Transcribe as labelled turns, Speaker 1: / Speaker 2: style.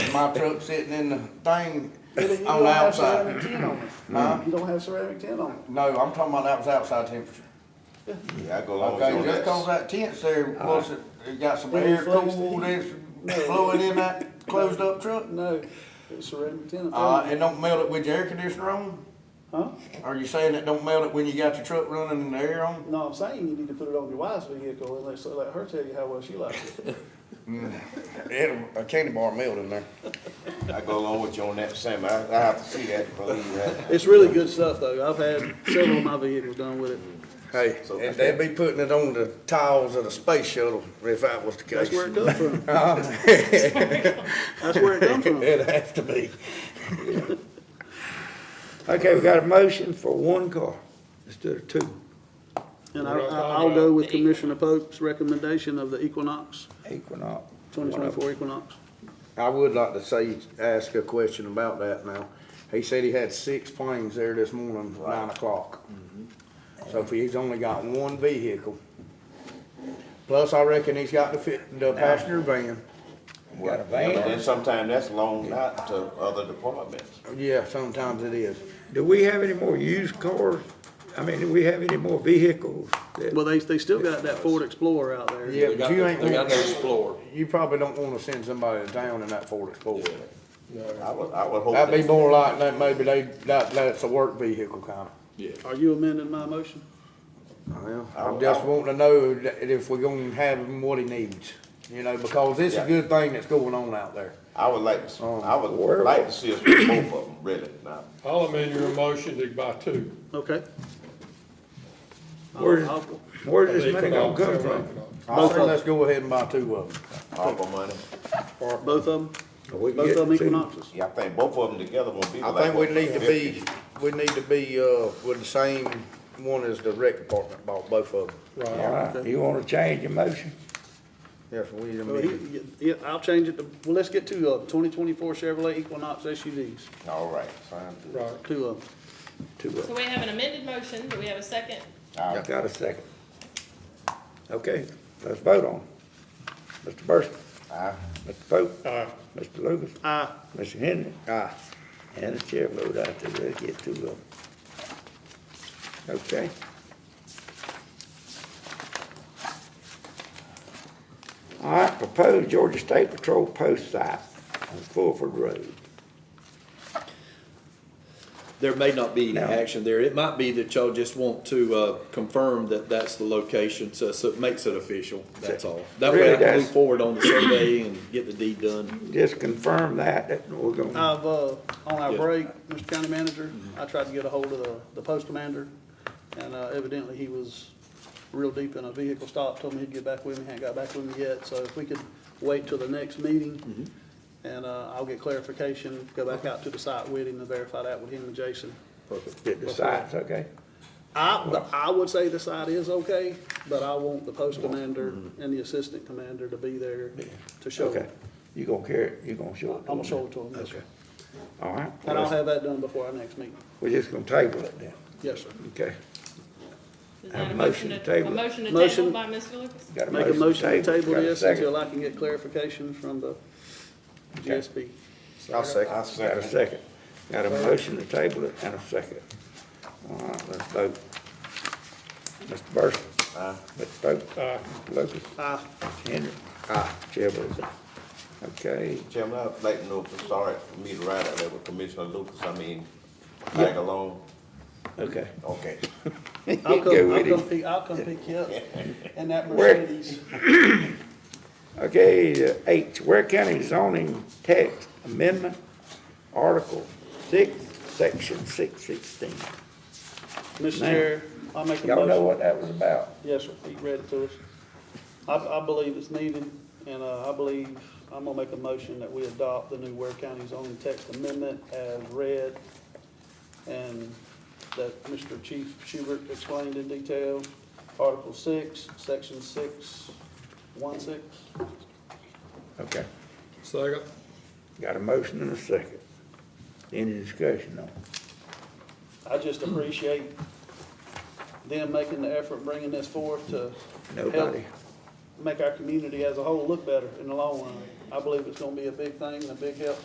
Speaker 1: my truck sitting in the thing
Speaker 2: You don't
Speaker 1: on the
Speaker 2: have
Speaker 1: outside.
Speaker 2: ceramic tin on it.
Speaker 1: Huh?
Speaker 2: You don't have ceramic tin on it.
Speaker 1: No, I'm talking about that was outside temperature.
Speaker 3: Yeah, I go along with
Speaker 1: Okay,
Speaker 3: you
Speaker 1: just
Speaker 3: on
Speaker 1: cause that tent there, was it, it got some
Speaker 2: Then it
Speaker 1: air
Speaker 2: flows the
Speaker 1: cool that's
Speaker 2: Uh-huh. No.
Speaker 1: blowing in that closed up truck?
Speaker 2: No, it's ceramic tin. up
Speaker 1: Uh,
Speaker 2: there.
Speaker 1: it don't melt it with your air conditioner on?
Speaker 2: Huh?
Speaker 1: Are you saying it don't melt it when you got your truck running and the air on?
Speaker 2: No, I'm saying you need to put it on your wife's vehicle and let, so let her tell you how well she likes it.
Speaker 1: It, a candy bar melt in there.
Speaker 3: that. I go along with you on that, Sam. I, I have to see that, believe that.
Speaker 2: It's really good stuff though. I've had several of my vehicles done with it.
Speaker 1: Hey,
Speaker 3: So-
Speaker 1: and they'd be putting it on the tiles of the space shuttle if that was the case.
Speaker 2: That's where it comes from. That's where it comes from.
Speaker 4: It'd have to be. Okay, we got a motion for one car instead of two.
Speaker 2: And I, I- I'll go with Commissioner Pope's recommendation of the Equinox,
Speaker 4: Equinox.
Speaker 2: twenty twenty-four Equinox.
Speaker 1: I would like to say, ask a question about that now. He said he had six planes there this morning, nine o'clock.
Speaker 5: Mm-hmm.
Speaker 1: So if he's only got one vehicle, plus I reckon he's got the fit, the passenger van.
Speaker 4: Got a
Speaker 3: But then
Speaker 4: van.
Speaker 3: sometimes that's loaned out to other departments.
Speaker 1: Yeah, sometimes it is.
Speaker 4: Do we have any more used cars? I mean, do we have any more vehicles? that-
Speaker 2: Well, they, they still got that Ford Explorer out there.
Speaker 1: Yeah,
Speaker 5: They
Speaker 1: but
Speaker 5: got
Speaker 1: you
Speaker 5: the-
Speaker 1: ain't,
Speaker 5: They got their
Speaker 1: want-
Speaker 5: Explorer.
Speaker 1: you probably don't wanna send somebody to town in that Ford Explorer.
Speaker 3: I would, I would hope.
Speaker 1: That'd be
Speaker 3: that-
Speaker 1: more like that, maybe they, that, that's a work vehicle kinda.
Speaker 5: Yeah.
Speaker 2: Are you amending my motion?
Speaker 1: Well,
Speaker 3: I-
Speaker 1: I'm just wanting to know that if we're gonna have him what he needs, you know, because it's a
Speaker 3: Yeah.
Speaker 1: good thing that's going on out there.
Speaker 3: I would like, to.
Speaker 1: Um,
Speaker 3: I would
Speaker 4: where-
Speaker 3: like to see us put both of them, really, now.
Speaker 6: I'll amend your motion to buy two.
Speaker 2: Okay. I'll-
Speaker 4: Where's,
Speaker 2: I'll-
Speaker 4: where's this money gonna
Speaker 6: Economic,
Speaker 4: come
Speaker 6: economic.
Speaker 4: from?
Speaker 1: I say let's go ahead and buy two of them.
Speaker 3: ARPA money.
Speaker 2: Both of them,
Speaker 4: We can
Speaker 2: both
Speaker 4: get
Speaker 2: of them
Speaker 4: two.
Speaker 2: Equinoxes.
Speaker 3: Yeah, I think both of them together will be
Speaker 1: I
Speaker 3: like.
Speaker 1: think we
Speaker 3: what,
Speaker 1: need to
Speaker 3: 50?
Speaker 1: be, we need to be, uh, with the same one as the rec department bought, both of them.
Speaker 6: Right.
Speaker 4: All right, you wanna change your motion?
Speaker 1: Yes, we need to
Speaker 2: Well,
Speaker 1: meet.
Speaker 2: he- Yeah, I'll change it to, well, let's get two of them, twenty twenty-four Chevrolet Equinox SUVs,
Speaker 3: All right, sounds good.
Speaker 6: Right.
Speaker 2: two of them.
Speaker 4: Two of
Speaker 7: So
Speaker 4: them.
Speaker 7: we have an amended motion, do we have a second?
Speaker 3: All
Speaker 4: I
Speaker 3: right.
Speaker 4: got a second. Okay, let's vote on it. Mr. Burson,
Speaker 3: Aye.
Speaker 4: Mr. Pope,
Speaker 6: Aye.
Speaker 4: Mr. Lucas,
Speaker 2: Aye.
Speaker 4: Mr. Henry,
Speaker 1: Ah,
Speaker 4: and the chair vote out there, let's get two of them. Okay, all right, proposed Georgia State Patrol post site on Fulford Road.
Speaker 5: There may not be
Speaker 4: No.
Speaker 5: action there. It might be that y'all just want to, uh, confirm that that's the location, so, so it makes it official, that's all. That way I
Speaker 4: Really
Speaker 5: can
Speaker 4: does.
Speaker 5: move forward on the survey and get the deed done.
Speaker 4: Just confirm that, that we're gonna,
Speaker 2: I've, uh, on our
Speaker 5: Yeah.
Speaker 2: break, Mr. County Manager, I tried to get a hold of the, the post commander, and uh, evidently he was real deep in a vehicle stop, told me he'd get back with me, hadn't got back with me yet, so if we could wait till the next meeting, and, uh, I'll get clarification, go back out to the site with him and verify that with him and Jason.
Speaker 4: get the sites, okay?
Speaker 2: I, I would say the site is okay, but I want the post commander and the assistant commander to be there to show
Speaker 4: Okay,
Speaker 2: it.
Speaker 4: you gonna carry it, you gonna show it to
Speaker 2: I'm
Speaker 4: them?
Speaker 2: gonna show it to them, yes,
Speaker 4: Okay.
Speaker 2: sir.
Speaker 4: All right,
Speaker 2: And I'll have that done before our next meeting,
Speaker 4: we're just gonna table it then,
Speaker 2: yes, sir.
Speaker 4: okay?
Speaker 7: Is
Speaker 4: Have
Speaker 7: that
Speaker 4: a motion to table.
Speaker 7: A motion to
Speaker 2: Motion.
Speaker 7: table by Mr. Lucas?
Speaker 4: Got
Speaker 2: Make a motion to table
Speaker 4: got a
Speaker 2: this
Speaker 4: second.
Speaker 2: until I can get clarification from the GSP.
Speaker 1: I'll second.
Speaker 3: I
Speaker 4: Got a
Speaker 3: second.
Speaker 4: second, got a motion to table it and a second. All right, let's vote. Mr. Burson. Aye. Mr. Pope.
Speaker 6: Aye.
Speaker 4: Mr. Lucas.
Speaker 2: Aye.
Speaker 4: Henry. Aye. Chair votes aye. Okay,
Speaker 3: Chairman, I'd like to know if it's all right for me to ride out there with Commissioner Lucas, I mean, tag along.
Speaker 4: okay.
Speaker 3: Okay.
Speaker 2: I'll
Speaker 4: Go
Speaker 2: come, I'll
Speaker 4: with
Speaker 2: come
Speaker 4: it.
Speaker 2: pick, I'll come pick you up in that
Speaker 4: Where-
Speaker 2: Mercedes.
Speaker 4: Okay, uh, H, Ware County zoning text amendment, Article six, Section six sixteen.
Speaker 2: Mr.
Speaker 4: Now.
Speaker 2: Chair, I'll make a
Speaker 4: Y'all
Speaker 2: motion.
Speaker 4: know what that was about?
Speaker 2: Yes, sir, he read it to us. I, I believe it's needed, and, uh, I believe, I'm gonna make a motion that we adopt the new Ware County zoning text amendment as read, and that Mr. Chief Schubert explained in detail, Article six, section six, one six.
Speaker 4: Okay,
Speaker 6: Second.
Speaker 4: got a motion and a second. Any discussion on it?
Speaker 2: I just appreciate them making the effort, bringing this forth to help
Speaker 4: Nobody?
Speaker 2: make our community as a whole look better in the long run. I believe it's gonna be a big thing and a big help